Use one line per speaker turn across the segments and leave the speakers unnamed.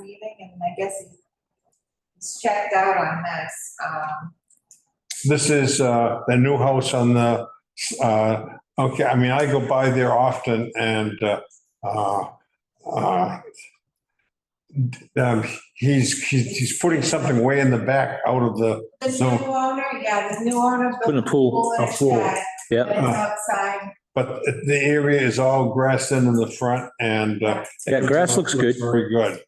leaving and I guess he's checked out on this, um,
This is uh, the new house on the, uh, okay, I mean, I go by there often and uh, uh, um, he's, he's he's putting something way in the back out of the,
this new
No.
owner, yeah, this new owner. built
Putting a pool,
in
a
his
pool,
shed,
yeah.
but It's outside,
but the area is all grassed in in the front and. uh,
Yeah, grass looks good.
Very good,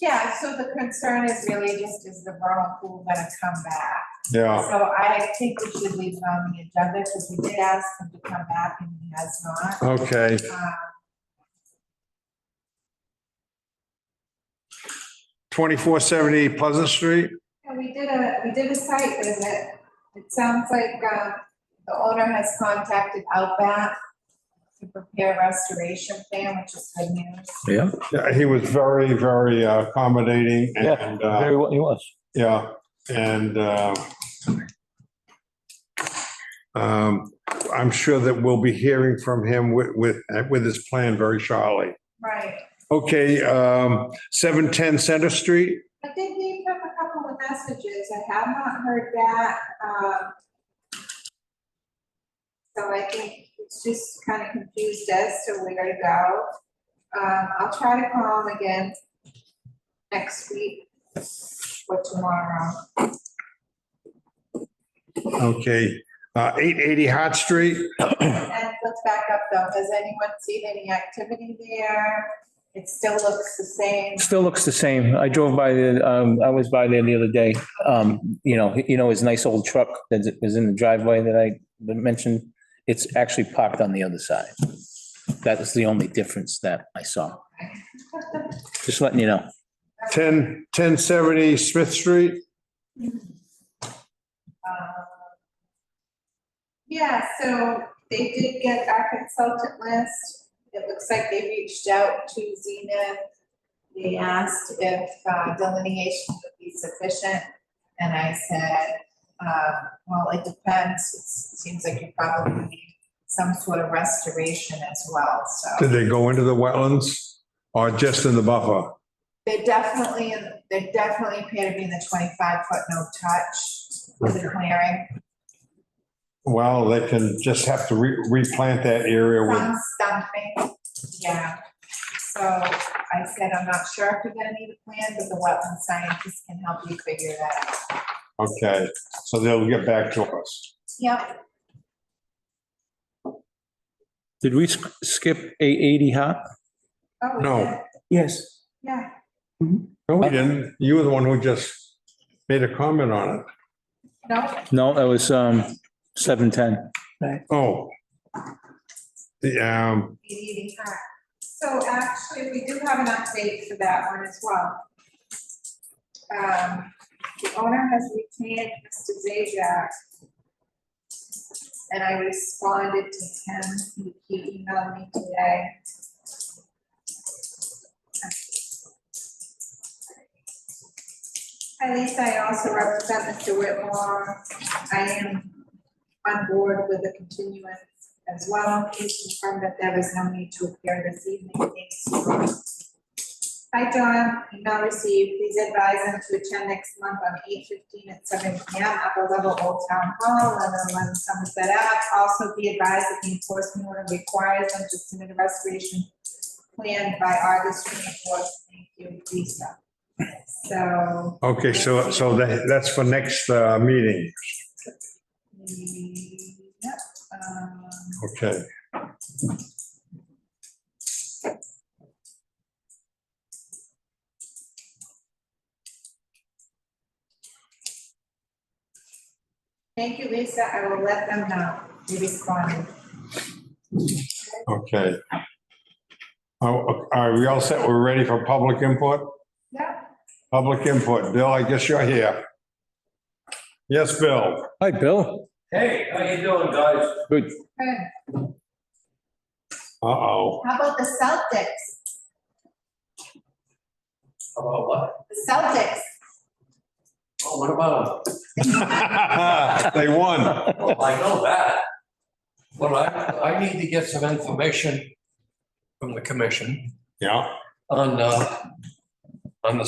yeah, so the concern is really just is the vernal pool gonna come back?
yeah.
So I think we should leave it on the agenda because we did ask him to come back and he has not.
Okay,
Uh,
2470 Pleasant Street?
And we did a, we did a site visit. It sounds like, uh, the owner has contacted Outback to prepare a restoration plan, which is good news.
Yeah.
Yeah, he was very, very uh, accommodating and, uh,
Very well, he was.
yeah, and uh, um, I'm sure that we'll be hearing from him with, with, with his plan very shortly.
Right.
Okay, um, 710 Center Street?
I did leave him a couple of messages. I have not heard back, um. So I think it's just kind of confused as to where to go. Um, I'll try to call him again next week or tomorrow.
Okay, uh, 880 Hot Street?
And let's back up though, has anyone seen any activity there? It still looks the same.
Still looks the same. I drove by the, um, I was by there the other day. Um, you know, you know, his nice old truck that is in the driveway that I mentioned. It's actually parked on the other side. That is the only difference that I saw. Just letting you know.
10, 1070 Smith Street?
Um, Yeah, so they did get our consultant list. It looks like they reached out to Zenith. They asked if uh, delineation would be sufficient, and I said, uh, well, it depends. It seems like you probably need some sort of restoration as well, so.
Did they go into the wetlands or just in the buffer?
They definitely, they definitely appear to be in the twenty-five foot no touch with the clearing.
Well, they can just have to re- replant that area with,
Some stumping, yeah. So I said, I'm not sure if you're gonna need a plan, but the wetland scientist can help you figure that out.
okay, so they'll get back to us.
Yep,
Did we sk- skip eight eighty hop?
oh, we
No.
did.
Yes.
yeah,
No, we didn't. You were the one who just made a comment on it.
no,
No, that was, um, seven ten.
Oh. The, um,
be eating that. So actually, we do have an update for that one as well. Um, the owner has retained Mr. Zajac. And I responded to him, He- he emailed me today. At least I also represent Mr. Whitmore. I am on board with the continuance as well. Please confirm that there is no need to appear this evening. Thanks. Hi, John. Email received. Please advise them to attend next month on eight fifteen at seven P M. Upper level Old Town Hall, eleven eleven Somerset Ave. Also be advised that the enforcement order requires them to submit a restoration plan by August twenty fourth. Thank you, Lisa. So
okay, so, so that, that's for next, uh, meeting,
Yep, um,
okay.
thank you, Lisa, I will let them know, they responded.
Okay. Oh, are we all set? We're ready for public input?
Yeah.
Public input. Bill, I guess you're here. Yes, Bill?
Hi, Bill.
Hey, how you doing, guys?
Good.
Good,
Uh-oh.
how about the Celtics,
How About what?
the Celtics?
Oh, what about?
They won.
Well, I know that. Well, I, I need to get some information from the commission
Yeah.
on, uh, on the